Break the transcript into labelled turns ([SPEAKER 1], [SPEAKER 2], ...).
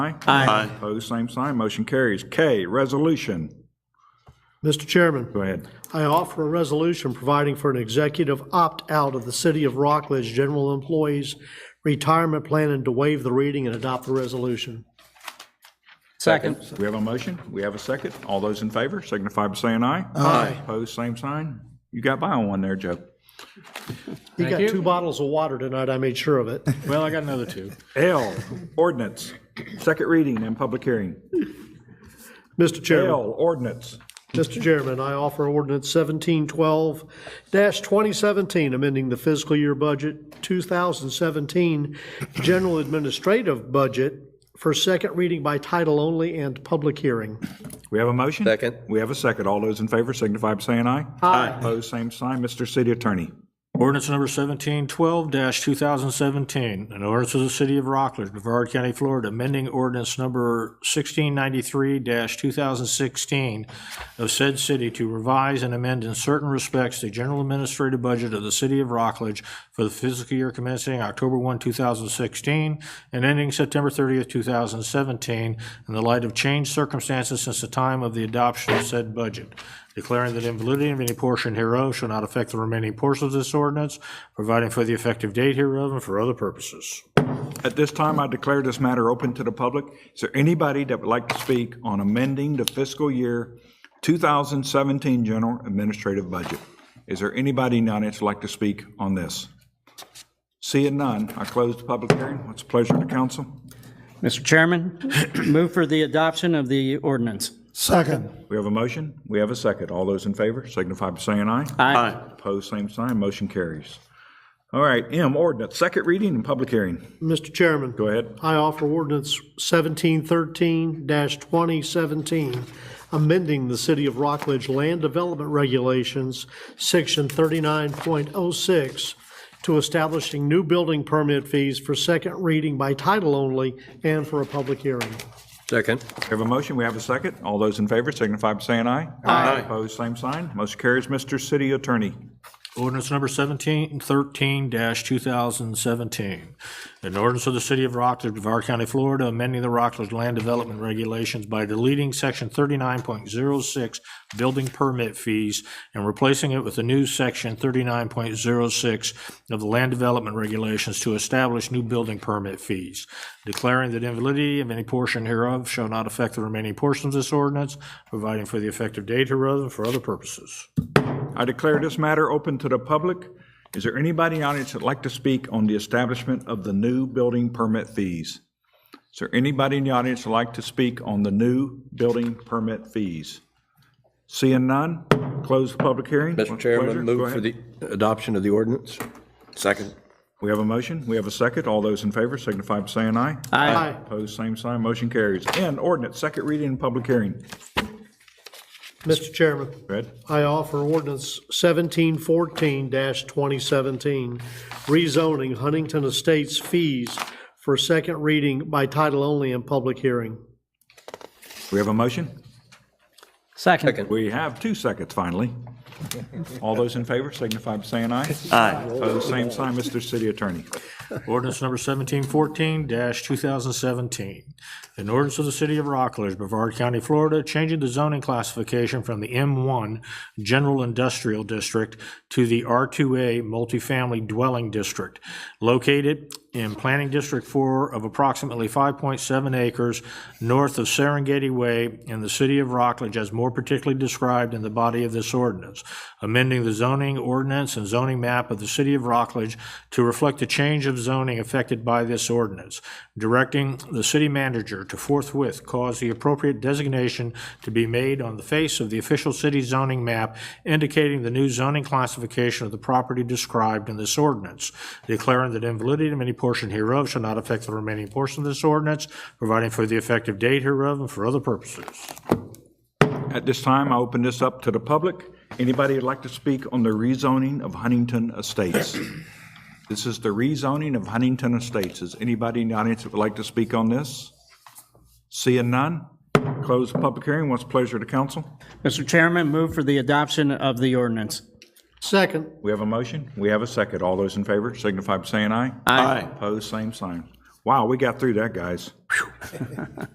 [SPEAKER 1] Aye.
[SPEAKER 2] Aye.
[SPEAKER 1] Opposed, same sign, motion carries. K, resolution.
[SPEAKER 3] Mr. Chairman,
[SPEAKER 1] Go ahead.
[SPEAKER 3] I offer a resolution providing for an executive opt-out of the City of Rockledge General Employees Retirement Plan and to waive the reading and adopt the resolution.
[SPEAKER 2] Second.
[SPEAKER 1] We have a motion, we have a second. All those in favor signify by saying aye.
[SPEAKER 2] Aye.
[SPEAKER 1] Opposed, same sign. You got by on one there, Joe.
[SPEAKER 3] You got
[SPEAKER 2] you.
[SPEAKER 3] two bottles of water tonight, I made sure of it.
[SPEAKER 4] Well, I got another two.
[SPEAKER 1] L, ordinance, second reading and public hearing.
[SPEAKER 3] Mr. Chairman.
[SPEAKER 1] L, ordinance.
[SPEAKER 3] Mr. Chairman, I offer ordinance seventeen twelve twenty seventeen, amending the fiscal year budget two thousand seventeen general administrative budget for second reading by title only and public hearing.
[SPEAKER 1] We have a motion?
[SPEAKER 2] Second.
[SPEAKER 1] We have a second. All those in favor signify by saying aye. Aye. Opposed, same sign. Mr. City Attorney.
[SPEAKER 4] Ordinance number seventeen twelve two thousand seventeen, an ordinance of the city of Rockledge, Brevard County, Florida, amending ordinance number sixteen ninety-three two thousand sixteen of said city to revise and amend in certain respects the general administrative budget of the city of Rockledge for the fiscal year commencing October one, two thousand sixteen, and ending September thirtieth, two thousand seventeen, in the light of changed circumstances since the time of the adoption of said budget declaring that invalidity of any portion hereof shall not affect the remaining portions of this ordinance, providing for the effective date hereof and for other purposes.
[SPEAKER 1] At this time, I declare this matter open to the public. Is there anybody that would like to speak on amending the fiscal year 2017 general administrative budget? Is there anybody in the audience that'd like to speak on this? Seeing none, I close the public hearing. What's the pleasure of the council?
[SPEAKER 2] Mr. Chairman, move for the adoption of the ordinance.
[SPEAKER 3] Second.
[SPEAKER 1] We have a motion, we have a second. All those in favor signify by saying aye.
[SPEAKER 2] Aye.
[SPEAKER 1] Opposed, same sign, motion carries. All right, M, ordinance, second reading and public hearing.
[SPEAKER 3] Mr. Chairman.
[SPEAKER 1] Go ahead.
[SPEAKER 3] I offer ordinance seventeen thirteen twenty seventeen, amending the City of Rockledge Land Development Regulations, section thirty-nine point oh six, to establishing new building permit fees for second reading by title only and for a public hearing.
[SPEAKER 5] Second.
[SPEAKER 1] We have a motion, we have a second. All those in favor signify by saying aye. Aye. Opposed, same sign, motion carries. Mr. City Attorney.
[SPEAKER 4] Ordinance number 1713-2017. An ordinance of the City of Rockledge, Brevard County, Florida, amending the Rockledge Land Development Regulations by deleting Section 39.06 Building Permit Fees and replacing it with a new Section 39.06 of the Land Development Regulations to establish new building permit fees, declaring that invalidity of any portion hereof shall not affect the remaining portions of this ordinance, providing for the effective date hereof and for other purposes.
[SPEAKER 1] I declare this matter open to the public. Is there anybody in the audience that'd like to speak on the establishment of the new building permit fees? Is there anybody in the audience that'd like to speak on the new building permit fees? Seeing none, close the public hearing.
[SPEAKER 5] Mr.
[SPEAKER 1] Pleasure.
[SPEAKER 5] Chairman,
[SPEAKER 1] Go
[SPEAKER 5] move for
[SPEAKER 1] ahead.
[SPEAKER 5] the adoption of the ordinance. Second.
[SPEAKER 1] We have a motion, we have a second. All those in favor signify by saying aye.
[SPEAKER 3] Aye.
[SPEAKER 1] Opposed, same sign, motion carries. And ordinance, second reading and public hearing.
[SPEAKER 3] Mr. Chairman.
[SPEAKER 1] Go ahead.
[SPEAKER 3] I offer ordinance seventeen fourteen twenty seventeen, rezoning Huntington Estates fees for second reading by title only and public hearing.
[SPEAKER 1] We have a motion?
[SPEAKER 2] Second.
[SPEAKER 5] Second.
[SPEAKER 1] We have two seconds, finally. All those in favor signify by saying aye.
[SPEAKER 2] Aye.
[SPEAKER 1] Opposed, same sign, Mr. City Attorney.
[SPEAKER 4] Ordinance number 1714-2017. An ordinance of the City of Rockledge, Brevard County, Florida, changing the zoning classification from the M1 General Industrial District to the R2A Multifamily Dwelling District, located in Planning District 4 of approximately 5.7 acres north of Serengeti Way in the City of Rockledge as more particularly described in the body of this ordinance, amending the zoning ordinance and zoning map of the City of Rockledge to reflect the change of zoning affected by this ordinance, directing the city manager to forthwith cause the appropriate designation to be made on the face of the official city zoning map indicating the new zoning classification of the property described in this ordinance, declaring that invalidity of any portion hereof shall not affect the remaining portion of this ordinance, providing for the effective date hereof and for other purposes.
[SPEAKER 1] At this time, I open this up to the public. Anybody would like to speak on the rezoning of Huntington Estates? This is the rezoning of Huntington Estates. Is anybody in the audience that would like to speak on this? Seeing none, close the public hearing. What's the pleasure of the council?
[SPEAKER 2] Mr. Chairman, move for the adoption of the ordinance.
[SPEAKER 3] Second,
[SPEAKER 1] We have a motion, we have a second. All those in favor signify by saying aye.
[SPEAKER 2] Aye.
[SPEAKER 1] Opposed, same sign. Wow, we got through that, guys.